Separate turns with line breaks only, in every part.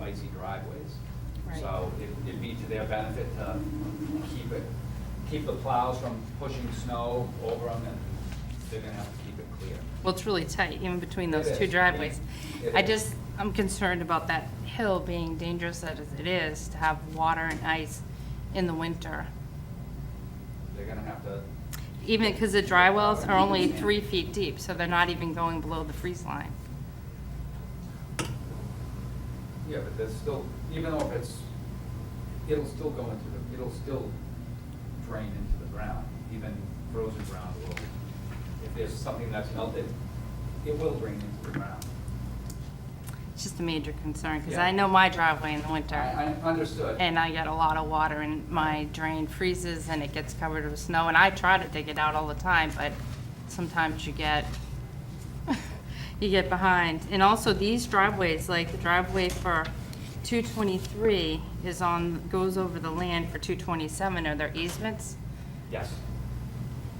icy driveways.
Right.
So it- it'd be to their benefit to keep it, keep the plows from pushing snow over them, and they're gonna have to keep it clear.
Well, it's really tight, even between
It
those
is.
two driveways.
It
I
is.
just, I'm concerned about that hill being dangerous as it is, to have water and ice in the winter.
They're gonna have to,
Even, because the dry wells are only three feet deep, so they're not even going below the freeze line.
yeah, but there's still, even though if it's, it'll still go into the, it'll still drain into the ground, even frozen ground will. If there's something that's melted, it will drain into the ground.
It's just a major concern, because
Yeah.
I know my driveway in the winter.
I, I understood.
and I get a lot of water and my drain freezes and it gets covered with snow. And I try to dig it out all the time, but sometimes you get, you get behind. And also these driveways, like the driveway for 223 is on, goes over the land for 227, are there easements?
Yes.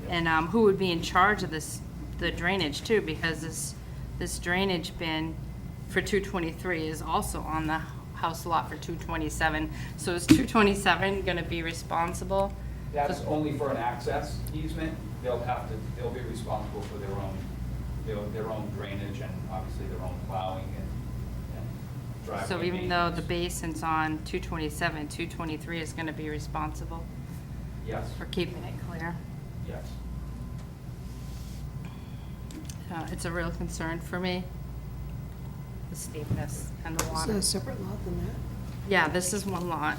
Yes.
And um, who would be in charge of this, the drainage too? Because this, this drainage bin for 223 is also on the house lot for 227. So is 227 going to be responsible?
That's only for an access easement. They'll have to, they'll be responsible for their own, their, their own drainage and obviously their own plowing and, and driveway.
So even though the
maintenance.
basin's on 227, 223 is going to be responsible
Yes,
for keeping it clear?
yes.
Uh, It's a real concern for me, the steepness and the
So
water.
a separate lot than that.
Yeah, this is one lot.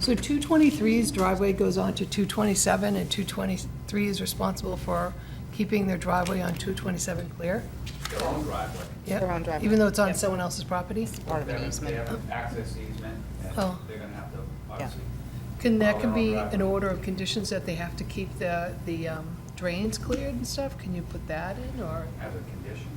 So 223's driveway goes on to 227, and 223 is responsible for keeping their driveway on 227 clear?
Their own driveway.
Yep.
Their own driveway,
Even though it's on
yep.
someone else's property?
Part of
They have-
an
They
easement.
have an access easement and
Oh.
they're gonna have to obviously.
Can, that can
Well,
be
they're on
an
driveway.
order of conditions that they have to keep the, the um, drains cleared and stuff? Can you put that in, or,
As a condition.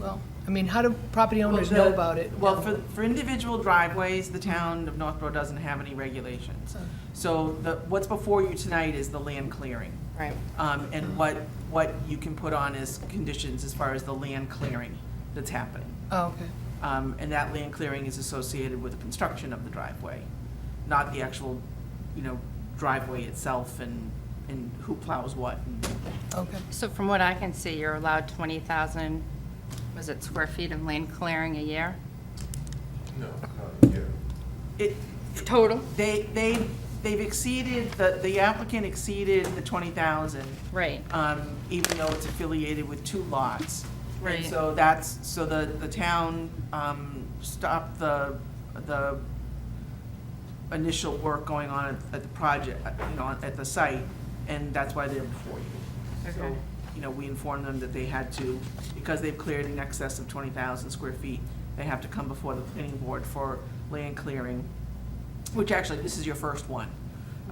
well, I mean, how do property owners know about it?
Well, for, for individual driveways, the town of Northborough doesn't have any regulations.
So-
So the, what's before you tonight is the land clearing.
Right.
Um, and what, what you can put on as conditions as far as the land clearing that's happening.
Oh, okay.
Um, and that land clearing is associated with the construction of the driveway, not the actual, you know, driveway itself and, and who plows what and
Okay.
So from what I can see, you're allowed 20,000, was it square feet of land clearing a year?
No, not here.
It,
Total?
they, they, they've exceeded, the, the applicant exceeded the twenty thousand,
Right.
um, even though it's affiliated with two lots.
Right.
And so that's, so the, the town, um, stopped the, the initial work going on at- at the project, uh, you know, at the site, and that's why they're before you. So,
Okay.
you know, we informed them that they had to, because they've cleared in excess of twenty thousand square feet, they have to come before the planning board for land clearing, which actually, this is your first one.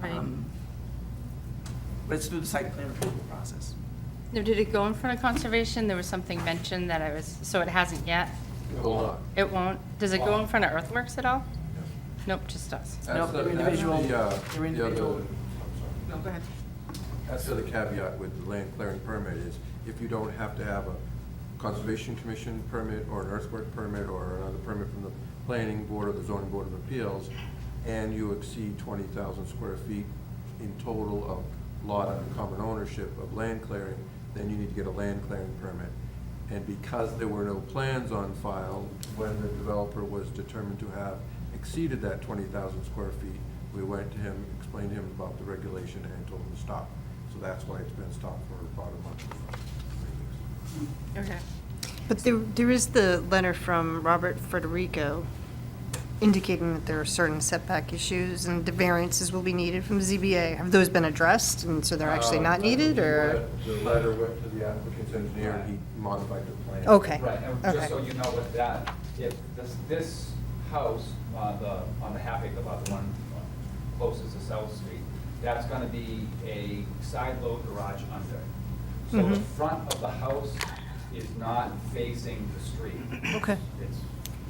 Right.
Um, But it's through the site plan approval process.
Now, did it go in front of conservation? There was something mentioned that I was, so it hasn't yet?
Hold on.
It won't? Does it go in front of earthworks at all? Nope, just us.
That's
Nope,
the-
they're
that's
individual.
the, uh,
They're
the other-
individual.
I'm sorry.
No, go ahead.
That's the other caveat with the land clearing permit is if you don't have to have a conservation commission permit or an earthwork permit or another permit from the planning board or the zoning board of appeals, and you exceed twenty thousand square feet in total of lot and common ownership of land clearing, then you need to get a land clearing permit. And because there were no plans on file, when the developer was determined to have exceeded that twenty thousand square feet, we went to him, explained to him about the regulation and told him to stop. So that's why it's been stopped for about a month.
Okay.
But there, there is the letter from Robert Federico indicating that there are certain setback issues and the variances will be needed from ZBA. Have those been addressed, and so they're actually not needed, or?
Uh, The letter went to the applicant's engineer and he modified the plan.
Okay.
Right, and just
okay.
so you know with that, if this, this house, uh, the, on the Havoc, about the one closest to South Street, that's gonna be a side load garage under. So
Mm-hmm.
the front of the house is not facing the street.
Okay. Mm-hmm.
It's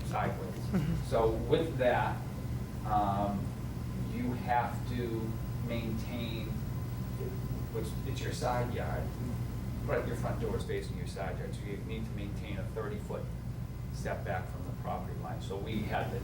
sideways. So with that, um, you have to maintain, which, it's your side yard, right, your front door is facing your side yard, so you need to maintain a thirty-foot setback from the property line. So we had to